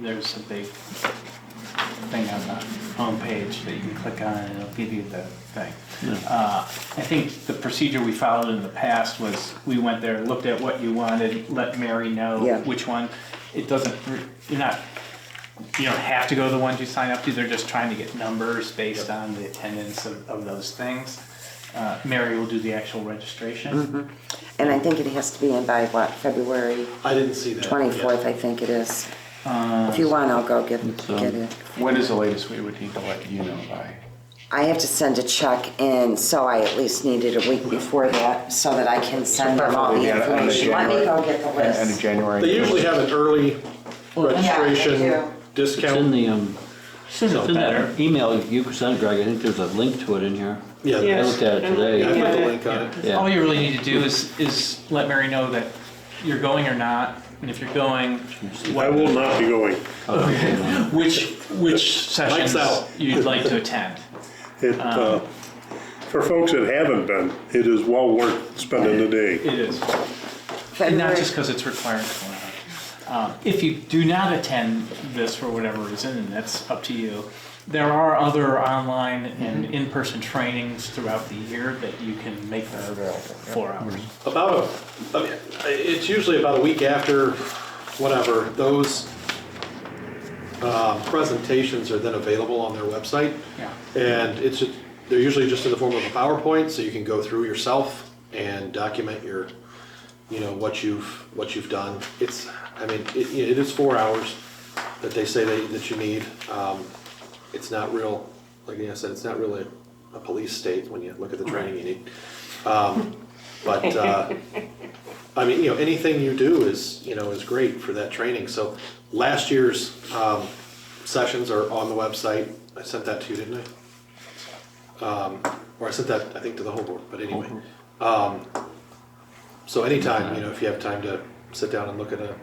There's a big thing on the homepage that you can click on and it'll give you the thing. Uh, I think the procedure we followed in the past was, we went there, looked at what you wanted, let Mary Yeah. know which one. It doesn't, you're not, you don't have to go to the ones you sign up to, they're just trying to get numbers based on the attendance of, of those things. Uh, Mary will do the actual registration. And I think it has to be in by what, February I didn't see that. twenty-fourth, I think it is. If you want, I'll go get, get it. Um, When is the latest we would need to let you know by? I have to send a check in, so I at least need it a week before that, so that I can send them all the End of information. Let me go January- get the End of list. January? They usually have an early Yeah, registration they It's in discount. the, um, Still it's in better. that email you sent Greg, I think there's a link to it in here. Yeah, I yeah, looked at it I put today. the link on it. Yeah. All you really need to do is, is let Mary know that you're going or not, and if you're going, I will not be going. which, which sessions out. you'd like to attend. It, uh, for folks that haven't been, it is well worth spending the day. It is, and not February, just because it's required. for it. Um, If you do not attend this for whatever reason, and that's up to you, there are other online and in-person trainings throughout the year that you can make the four hours. About, a- I mean, it's usually about a week after, whatever, those uh, presentations are then available on their website. Yeah. And it's, they're usually just in the form of a PowerPoint, so you can go through yourself and document your, you know, what you've, what you've done. It's, I mean, it, it is four hours that they say that, that you need. Um, It's not real, like I said, it's not really a police state when you look at the training you need. Um, But, uh, I mean, you know, anything you do is, you know, is great for that training. So last year's um, sessions are on the website. I sent that to you, didn't I? Um, Or I sent that, I think, to the whole board, but anyway. Um, So anytime, you know, if you have time to sit down and look at a,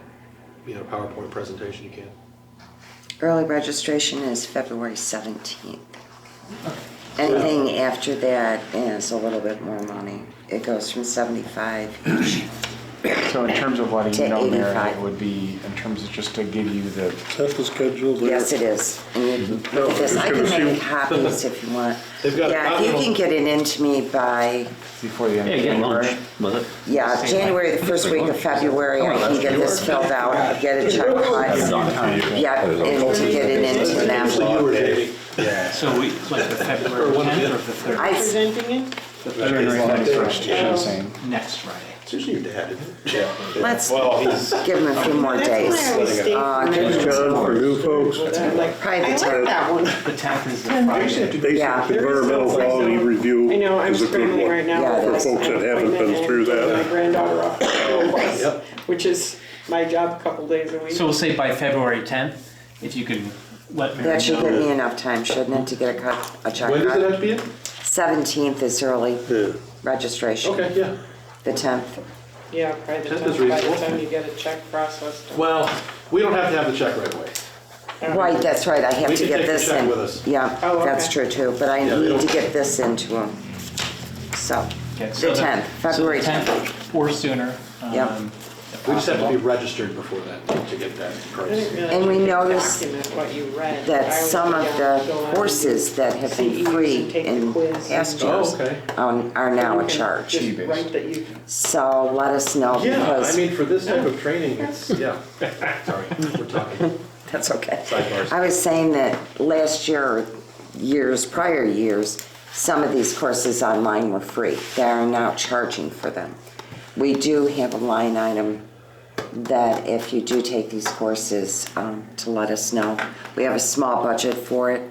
you know, PowerPoint presentation, you can. early registration is February seventeenth. Anything after that is a little bit more money. It goes from seventy-five So in terms of letting To you know, Mary, 85. it would be, in terms of just to give you the, That's the schedule there. Yes, it is. And you Oh, can look at this. I can make copies if you want. They've got a Yeah, if you copy. can get it into me by, before the end Yeah, of get lunch January. with it. yeah, January, the first week of February, I can get this filled out, get a check cut. Yeah, and to get it into Usually you them. or Jamie. So we, like the February Or one of the 10th or other. the 30th, I, presenting it? January thirty-first, you should have seen. next Friday. It's usually your dad, isn't it? let's Well, he's. give them a few more That's days. where I always stay Uh, Ah, give from there. them some John, more. for new folks, I'm like, Probably I the like tenth. that one. The 10th is the Friday. basic Yeah. environmental quality review I know, I'm is a good scrambling one. right now. Yeah, with for my folks that son haven't been appointment through and that. My granddaughter off to Columbus, Yep. which is my job a couple days a week. So we'll say by February 10th, if you can let Mary That should give know. me enough time, shouldn't it, to get a cut, a check When does it have cut? to be in? Seventeenth is early registration, Okay, yeah. the tenth. Yeah, probably the That is time, by the reasonable. time you get a check processed. Well, we don't have to have the check right away. Right, that's right, I have We to can get take the this check in. with us. Yeah, Oh, that's okay. true too, but I Yeah, they need to don't- get this into them. So, Okay, the so tenth, so the February 10th tenth. Or sooner. Yep. um, if We just have to be possible. registered before that to get that price. And we noticed That some of the courses that have been free in past Oh, years okay. um, are now a charge. Gee, Right, that you, So let us know Yeah, I because, mean, for this type of training, it's, yeah. Sorry, we're talking that's okay. sidebars. I was saying that last year, years, prior years, some of these courses online were free. They are now charging for them. We do have a line item that if you do take these courses, um, to let us know. We have a small budget for it,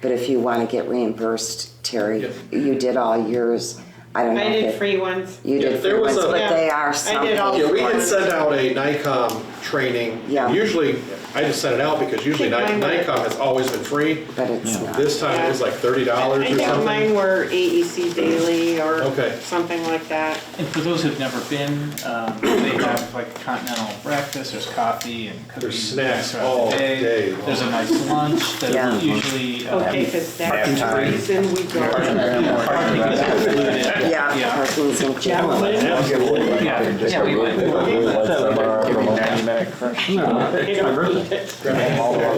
but if you want to get reimbursed, Terry, Yep. you did all yours. I don't know I did if it- free ones. you Yeah, did there free was ones, a- but they Yeah, are I did all- something. Yeah, we had sent out a NICOM training. Yeah. Usually, I just sent it out because usually Ni- Think mine were- NICOM has always been free. But it's not. This time it was like thirty dollars I or think mine something. were AEC daily or Okay. something like that. And for those who've never been, um, they have like continental breakfast, there's coffee and cookies. snacks throughout the all day long. There's a nice lunch Yeah. that usually. uh, Okay, because Half that's the time. reason we go. parking is included. Yeah, parking's included. Yeah, yeah, we went. Give me ninety minute correction. You know, good.